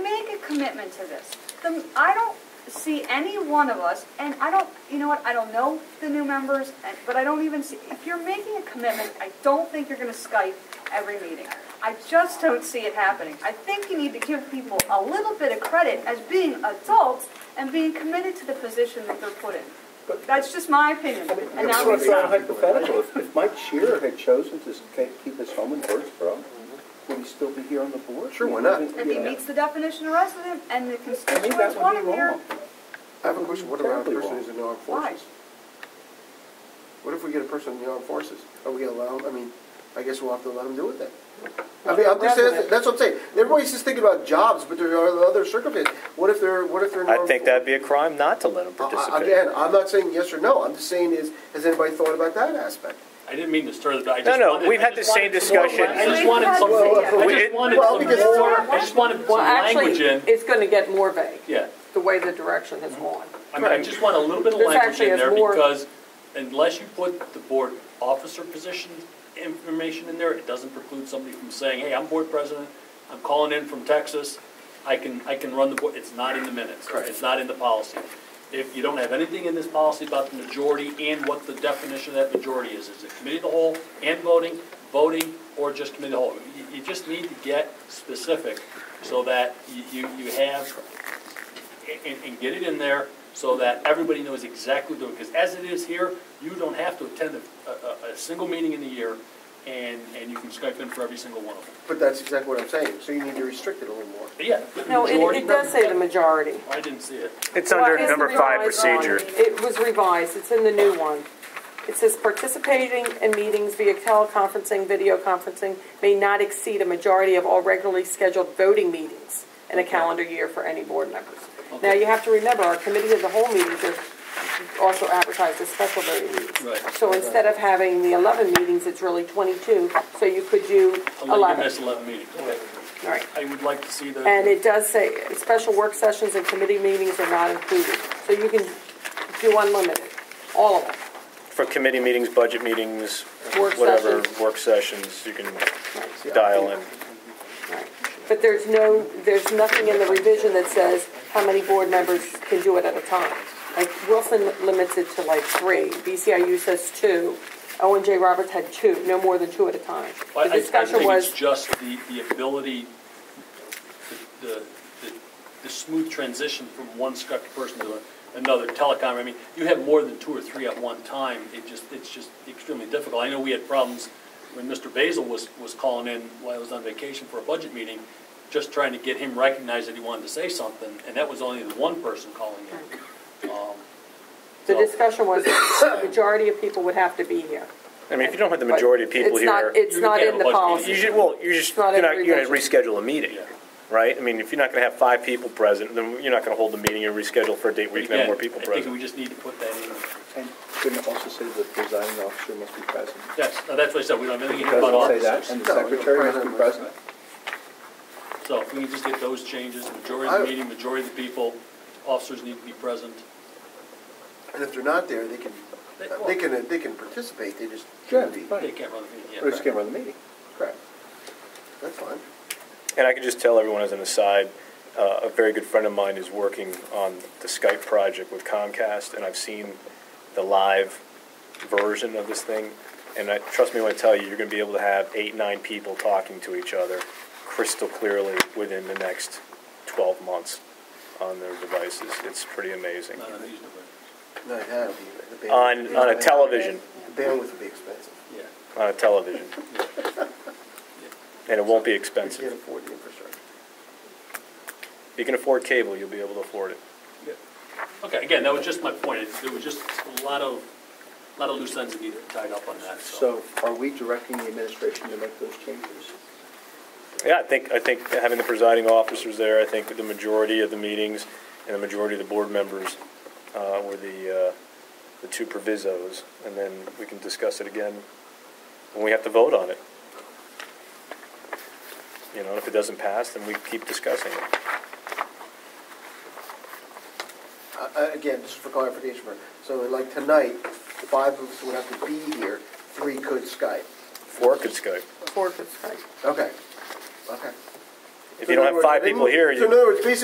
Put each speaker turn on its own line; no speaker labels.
commitment to this. The, I don't see any one of us, and I don't, you know what, I don't know the new members, and- but I don't even see, if you're making a commitment, I don't think you're gonna Skype every meeting. I just don't see it happening. I think you need to give people a little bit of credit as being adults and being committed to the position that they're put in. That's just my opinion, and
It's
that
sort
was,
of a hypothetical. If- If Mike Shearer had chosen to stay- keep his home in Birdsboro, would he still be here on the board?
Sure, why not?
You know,
if he meets the definition of resident and the
I mean,
constituents
that
want
would
him
be
here,
wrong.
I have a question, what about a
Terribly
person
wrong.
who's in the armed
why?
forces? What if we get a person in the armed forces? Are we gonna allow him, I mean, I guess we'll have to let him do it then. I mean, I'm just saying, that's what I'm saying, everybody's just thinking about jobs, but there are other circumstances. What if they're, what if they're in the
I
armed?
think that'd be a crime not to let them
Uh, I- I-
participate.
Again, I'm not saying yes or no, I'm just saying is, has anybody thought about that aspect?
I didn't mean to stir the, I just
No, no,
wanted-
we've
I
had
just
the same
wanted some more-
discussion.
I just wanted some,
Well,
I
it-
just wanted
well,
some
because-
more, I just wanted some
Well, actually,
language in,
it's gonna get more vague,
yeah.
the way the direction has gone.
I mean, I just want a little bit of
This
language
actually
in
has
there
more-
because unless you put the board officer position information in there, it doesn't preclude somebody from saying, hey, I'm board president, I'm calling in from Texas, I can, I can run the board, it's not in the minutes, it's not in the policy. If you don't have anything in this policy about the majority and what the definition of that majority is, is it committee of the whole and voting, voting, or just committee of the whole? You, you just need to get specific so that you, you you have and, and get it in there so that everybody knows exactly what to do. Because as it is here, you don't have to attend a, a, a single meeting in the year, and, and you can Skype in for every single one of them.
But that's exactly what I'm saying, so you need to restrict it a little more.
But yeah.
No, it,
majority-
it does say the majority.
I didn't see it.
It's
Well,
under
it's
number five
revised on-
procedure.
It was revised, it's in the new one. It says participating in meetings via teleconferencing, video conferencing may not exceed a majority of all regularly scheduled voting meetings in a calendar year for any board members. Now, you have to remember, our committee of the whole meetings are also advertised as special voting meetings.
Right.
So instead of having the eleven meetings, it's really twenty-two, so you could do
Eleven,
eleven.
that's eleven meetings. Okay.
All right.
I would like to see the.
And it does say, special work sessions and committee meetings are not included, so you can do unlimited, all of them.
For committee meetings, budget meetings,
Work
whatever,
sessions.
work sessions, you can
Right.
dial in.
Right. But there's no, there's nothing in the revision that says how many board members can do it at a time. Like Wilson limits it to like three, BCIU says two, Owen J. Roberts had two, no more than two at a time.
I-
The
I- I
discussion
think
was,
It's just the, the ability, the, the, the smooth transition from one Skype person to another telecom. I mean, you have more than two or three at one time, it just, it's just extremely difficult. I know we had problems when Mr. Basil was, was calling in while I was on vacation for a budget meeting, just trying to get him recognized that he wanted to say something, and that was only the one person calling in. Um,
the
so-
discussion was, the majority of people would have to be here.
I mean, if you don't have the majority of people
It's not-
here,
It's
You
not
can't
in the
have a budget
policy.
you should, well, you just,
It's not
you're not,
every
you're gonna
budget.
reschedule a meeting,
Yeah.
right? I mean, if you're not gonna have five people present, then you're not gonna hold the meeting, you reschedule for a date where you can have more
Again,
people
I think
present.
we just need to put that in.
And couldn't it also say that the presiding officer must be present?
That's, that's what I said, we don't have anything
It
here about
Doesn't say
officers.
that, and the
No, you're
secretary must be
president.
present?
So if we can just get those changes, majority of the meeting, majority of the people, officers need to be present.
And if they're not there, they can, Uh, they can, they can participate, they just
Sure,
shouldn't be.
fine.
They can't run the meeting
Or
yet.
just can't run the meeting.
Correct. That's fine.
And I can just tell everyone as an aside, uh, a very good friend of mine is working on the Skype project with Comcast, and I've seen the live version of this thing. And I, trust me when I tell you, you're gonna be able to have eight, nine people talking to each other crystal clearly within the next twelve months on their devices. It's pretty amazing.
None of these do
No, it had to be. The
On,
bandwidth-
on a television,
The bandwidth would be expensive.
it. Yeah.
on a television. And it won't be
We
expensive.
can't afford the infrastructure.
If you can afford cable, you'll be able to afford it.
Yeah. Okay, again, that was just my point. It- There was just a lot of, lot of loose ends that needed tied up on that, so.
So are we directing the administration to make those changes?
Yeah, I think, I think having the presiding officers there, I think the majority of the meetings and the majority of the board members uh, were the, uh, the two provisos, and then we can discuss it again when we have to vote on it. You know, if it doesn't pass, then we keep discussing it.
Uh, uh, Again, just for clarification, for- so like tonight, the five of us would have to be here, three could Skype.
Or it could Skype.
Four could strike.
Okay, okay.
If you don't have five people here, you.
So in other words, basically